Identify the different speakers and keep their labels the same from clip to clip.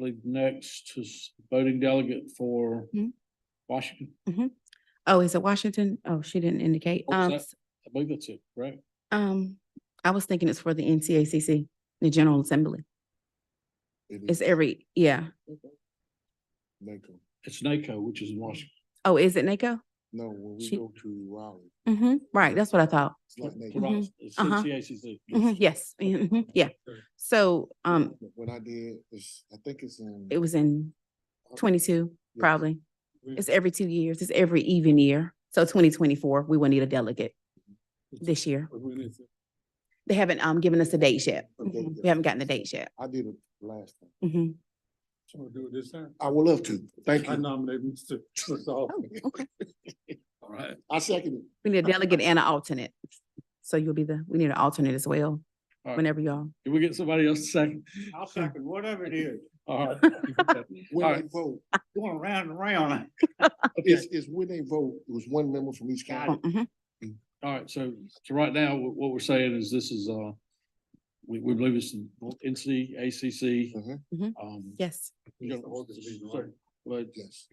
Speaker 1: believe next is voting delegate for
Speaker 2: Mhm.
Speaker 1: Washington.
Speaker 2: Oh, is it Washington? Oh, she didn't indicate.
Speaker 1: What was
Speaker 2: Um,
Speaker 1: that?
Speaker 2: s-
Speaker 1: I believe that's it, right?
Speaker 2: um, I was thinking it's for the NCACC, the General Assembly. It's every, yeah.
Speaker 3: NACO.
Speaker 1: It's NACO, which is in Washington.
Speaker 2: Oh, is it NACO?
Speaker 3: No, when we
Speaker 2: She-
Speaker 3: go to Raleigh,
Speaker 2: Mm-hmm. Right, that's what I thought.
Speaker 3: it's like NACO.
Speaker 1: Right, It's
Speaker 2: Uh-huh.
Speaker 1: NCACC.
Speaker 2: Mhm, Yes, mhm, yeah. So, um,
Speaker 3: When I did, it's, I think it's in.
Speaker 2: it was in twenty-two,
Speaker 3: yeah,
Speaker 2: probably. It's every two years. It's every even year. So twenty twenty-four, we will need a delegate this year. They haven't, um, given us a date yet.
Speaker 3: A date
Speaker 2: Mhm,
Speaker 3: yet.
Speaker 2: We haven't gotten a date yet.
Speaker 3: I did it last time.
Speaker 2: Mhm.
Speaker 4: do it this time.
Speaker 3: I would love to. Thank
Speaker 4: I
Speaker 3: you.
Speaker 4: nominate Mr.
Speaker 2: Oh, okay.
Speaker 1: All right.
Speaker 3: I second
Speaker 2: We need a delegate and an alternate. So you'll be the, we need an alternate as well,
Speaker 1: All right.
Speaker 2: whenever y'all.
Speaker 1: Can we get somebody else to second?
Speaker 4: I'll second, whatever it is,
Speaker 1: All right.
Speaker 3: it. When they
Speaker 1: Alright.
Speaker 3: vote,
Speaker 4: going round and round.
Speaker 3: it's, it's when they vote, it was one member from each county.
Speaker 2: Mhm,
Speaker 1: All right, so, so right now, wh- what we're saying is this is, uh, we, we believe it's NCACC.
Speaker 3: Mhm.
Speaker 2: Mhm.
Speaker 1: Um,
Speaker 2: Yes.
Speaker 1: you know, so- But
Speaker 3: Yes.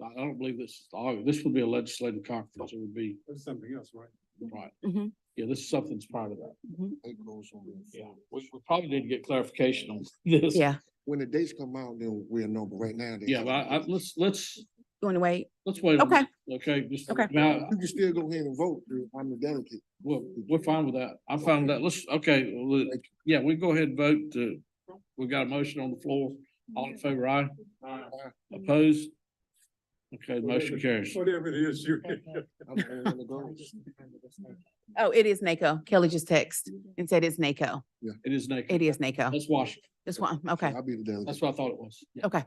Speaker 1: I I don't believe this, is August. this would be a legislative conference. It would be,
Speaker 4: That's something else, right?
Speaker 1: right.
Speaker 2: Mhm,
Speaker 1: Yeah, this is something's part of that.
Speaker 2: mhm.
Speaker 3: NACO's on the-
Speaker 1: Yeah, we, we probably need to get clarification on this.
Speaker 2: Yeah,
Speaker 3: When the dates come out, then we'll know, but right now. they-
Speaker 1: Yeah, but I, I, let's, let's,
Speaker 2: you want to wait?
Speaker 1: let's wait. on
Speaker 2: Okay.
Speaker 1: this, Okay, just,
Speaker 2: Okay.
Speaker 1: now,
Speaker 3: You can still go ahead and vote. dude. I'm the delegate.
Speaker 1: we're, we're fine with that. I'm fine with that. Let's, okay, well, yeah, we go ahead and vote. to- We've got a motion on the floor. All in favor, aye? Opposed? Okay, the motion carries.
Speaker 4: Whatever it is, you.
Speaker 3: I'm the one that goes.
Speaker 2: Oh, it is NACO. Kelly just texted and said it's NACO.
Speaker 1: It is naked.
Speaker 2: It is NACO.
Speaker 1: That's Washington.
Speaker 2: This one, okay,
Speaker 3: I'll be the
Speaker 1: That's
Speaker 3: delegate.
Speaker 1: what I thought it was. Yeah.
Speaker 2: okay.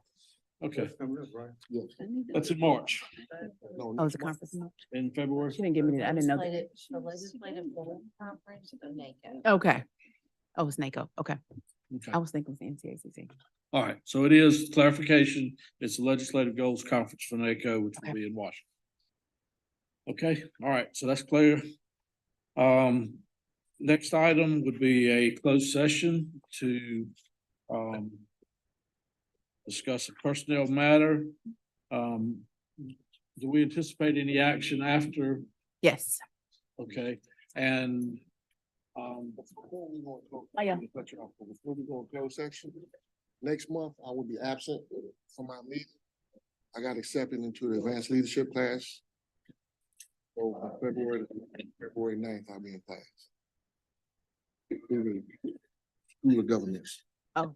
Speaker 1: Okay,
Speaker 4: Something else, right?
Speaker 3: Yes.
Speaker 1: that's in March,
Speaker 3: No,
Speaker 2: Oh, it's a
Speaker 3: next month.
Speaker 2: conference. in March.
Speaker 1: in February.
Speaker 2: She didn't give me that. I didn't know. that.
Speaker 5: Legislative- The legislative voting conference of NACO.
Speaker 2: Okay. Oh, it's NACO. Okay.
Speaker 1: Okay.
Speaker 2: I was thinking it was NCACC.
Speaker 1: All right, so it is clarification. It's the Legislative Goals Conference for NACO, which will
Speaker 2: Okay.
Speaker 1: be in Washington. Okay, all right, so that's clear. Um, next item would be a closed session to, um, discuss a personnel matter. Um, do we anticipate any action after?
Speaker 2: Yes.
Speaker 1: Okay, and, um,
Speaker 3: Before we go in closed-
Speaker 2: Oh, yeah.
Speaker 3: let me cut you off, but Before we go in closed section, next month I will be absent from my meeting. I got accepted into the advanced leadership class. So on February, February 9th, I'll be in class. Through the- through the governance.
Speaker 2: Oh,